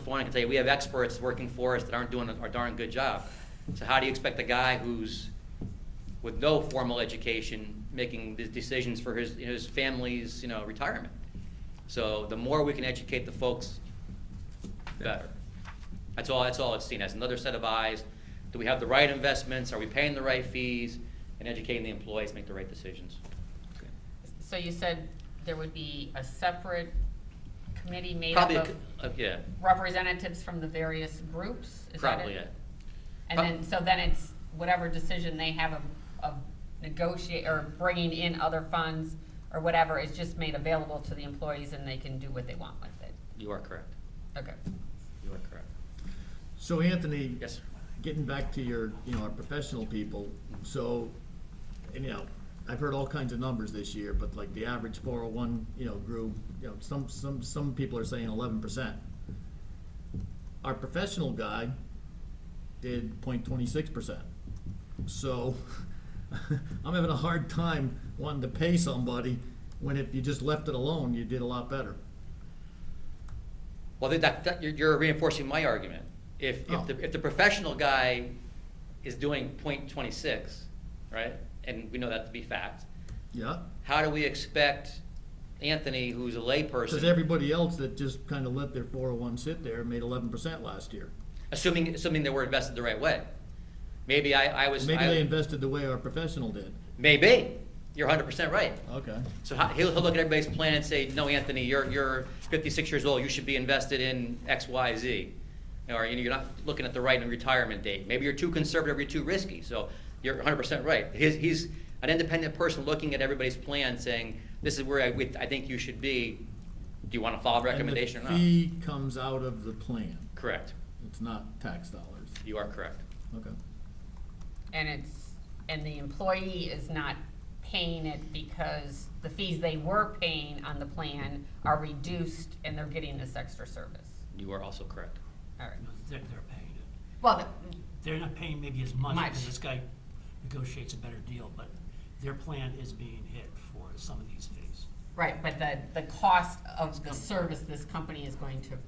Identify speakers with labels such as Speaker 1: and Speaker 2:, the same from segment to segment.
Speaker 1: point, I can tell you, we have experts working for us that aren't doing a darn good job. So how do you expect a guy who's with no formal education making these decisions for his, his family's, you know, retirement? So the more we can educate the folks, better. That's all, that's all it's seen as, another set of eyes. Do we have the right investments? Are we paying the right fees? And educating the employees, to make the right decisions.
Speaker 2: So you said there would be a separate committee made up
Speaker 1: Probably, a
Speaker 2: of
Speaker 1: c- uh, yeah,
Speaker 2: representatives from the various groups? Is that
Speaker 1: probably, yeah.
Speaker 2: And then, so then it's whatever decision they have of, of negotiate, or bringing in other funds or whatever is just made available to the employees and they can do what they want with it.
Speaker 1: You are correct.
Speaker 2: Okay.
Speaker 1: You are correct.
Speaker 3: So Anthony,
Speaker 1: Yes, sir.
Speaker 3: getting back to your, you know, our professional people, so, and, you know, I've heard all kinds of numbers this year, but like the average four oh one, you know, grew, you know, some, some, some people are saying eleven percent. Our professional guy did point twenty-six percent. So, I'm having a hard time wanting to pay somebody when if you just left it alone, you did a lot better.
Speaker 1: Well, that, that, you're, you're reinforcing my argument. If, if the,
Speaker 3: Oh.
Speaker 1: if the professional guy is doing point twenty-six, right, and we know that to be fact,
Speaker 3: Yeah?
Speaker 1: how do we expect Anthony, who's a
Speaker 3: Cause
Speaker 1: layperson,
Speaker 3: everybody else that just kinda let their four oh one sit there made eleven percent last year.
Speaker 1: assuming, assuming that we're invested the right way? Maybe I, I was.
Speaker 3: Maybe
Speaker 1: I-
Speaker 3: they invested the way our professional did.
Speaker 1: Maybe. You're hundred percent right.
Speaker 3: Okay.
Speaker 1: So how- he'll, he'll look at everybody's plan and say, no, Anthony, you're, you're fifty-six years old, you should be invested in X, Y, Z. Or, you know, you're not looking at the right retirement date. Maybe you're too conservative, you're too risky, so you're hundred percent right. He's, he's an independent person looking at everybody's plan, saying, this is where I, we- I think you should be. Do you wanna follow recommendation or
Speaker 3: And the
Speaker 1: not?
Speaker 3: fee comes out of the plan.
Speaker 1: Correct.
Speaker 3: It's not tax dollars.
Speaker 1: You are correct.
Speaker 3: Okay.
Speaker 2: And it's, and the employee is not paying it because the fees they were paying on the plan are reduced and they're getting this extra service.
Speaker 1: You are also correct.
Speaker 2: All right.
Speaker 4: No, They're, they're paying it.
Speaker 2: Well, the-
Speaker 4: They're not paying maybe as much
Speaker 2: Much.
Speaker 4: because this guy negotiates a better deal, but their plan is being hit for some of these fees.
Speaker 2: right, but the, the cost of the service this company is going to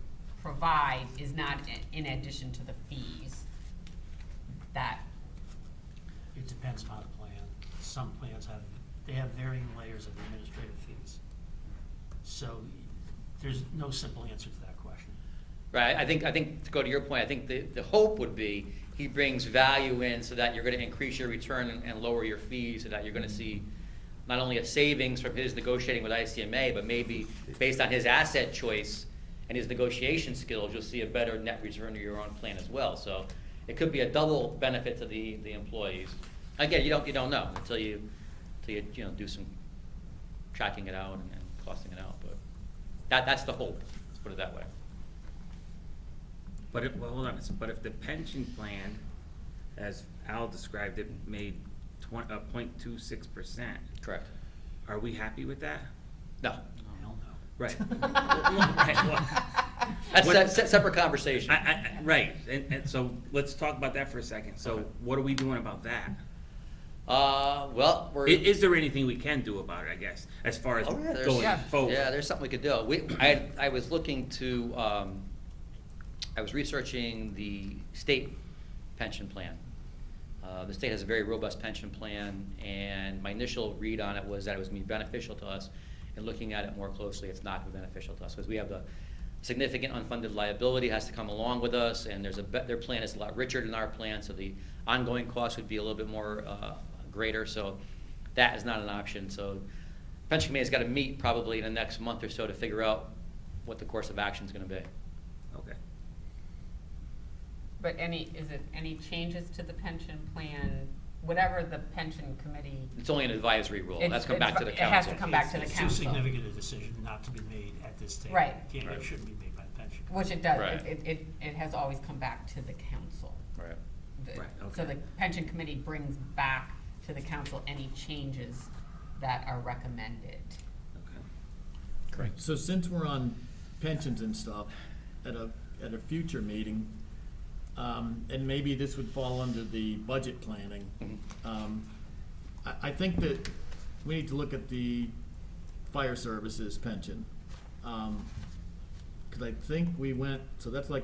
Speaker 2: provide is not i- in addition to the fees that,
Speaker 4: It depends upon the plan. Some plans have, they have varying layers of administrative fees. So there's no simple answer to that question.
Speaker 1: Right, I think, I think, to go to your point, I think the, the hope would be he brings value in so that you're gonna increase your return and- and lower your fees, so that you're gonna see not only a savings from his negotiating with ICMA, but maybe based on his asset choice and his negotiation skills, you'll see a better net return to your own plan as well. So it could be a double benefit to the, the employees. Again, you don't, you don't know until you, until you, you know, do some tracking it out and and costing it out, but that, that's the hope, let's put it that way.
Speaker 5: But if, well, hold on, It's- but if the pension plan, as Al described it, made twen- uh, point two six percent,
Speaker 1: Correct.
Speaker 5: are we happy with that?
Speaker 1: No.
Speaker 4: Hell no.
Speaker 5: Right. Right, well,
Speaker 1: That's
Speaker 5: What-
Speaker 1: a se- separate conversation.
Speaker 5: I, I, I- right, and, and so let's talk about that for a second, so
Speaker 1: Okay.
Speaker 5: what are we doing about that?
Speaker 1: Uh, well,
Speaker 5: I-
Speaker 1: we're.
Speaker 5: Is there anything we can do about it, I guess, as far as
Speaker 1: Oh, yeah, there's-
Speaker 5: going
Speaker 1: yeah,
Speaker 5: forward?
Speaker 1: Yeah, there's something we could do. We, I, I was looking to, um, I was researching the state pension plan. Uh, the state has a very robust pension plan, and my initial read on it was that it was gonna be beneficial to us. And looking at it more closely, it's not gonna be beneficial to us, because we have the significant unfunded liability has to come along with us, and there's a, bet- their plan is a lot richer than our plan, so the ongoing cost would be a little bit more, uh, greater, so that is not an option, so pension committee's gotta meet probably in the next month or so to figure out what the course of action's gonna be.
Speaker 5: Okay,
Speaker 2: but any, is it any changes to the pension plan, whatever the pension committee?
Speaker 1: It's only an advisory rule,
Speaker 2: It's-
Speaker 1: that's come back to the
Speaker 2: it has to
Speaker 1: council.
Speaker 2: come back to the
Speaker 4: It's- It's
Speaker 2: council.
Speaker 4: too significant a decision not to be made at this table.
Speaker 2: Right.
Speaker 4: Can't,
Speaker 1: Right.
Speaker 4: it shouldn't be made by the pension.
Speaker 2: Which it does,
Speaker 1: Right.
Speaker 2: it, it, it has always come back to the council.
Speaker 1: Right.
Speaker 2: The-
Speaker 5: Right,
Speaker 2: So
Speaker 5: okay.
Speaker 2: the pension committee brings back to the council any changes that are recommended.
Speaker 5: okay.
Speaker 1: Correct.
Speaker 3: So since we're on pensions and stuff, at a, at a future meeting, um, and maybe this would fall under the budget planning,
Speaker 1: Mhm.
Speaker 3: um, I, I think that we need to look at the fire services pension. Um 'cause cause I think we went, so that's like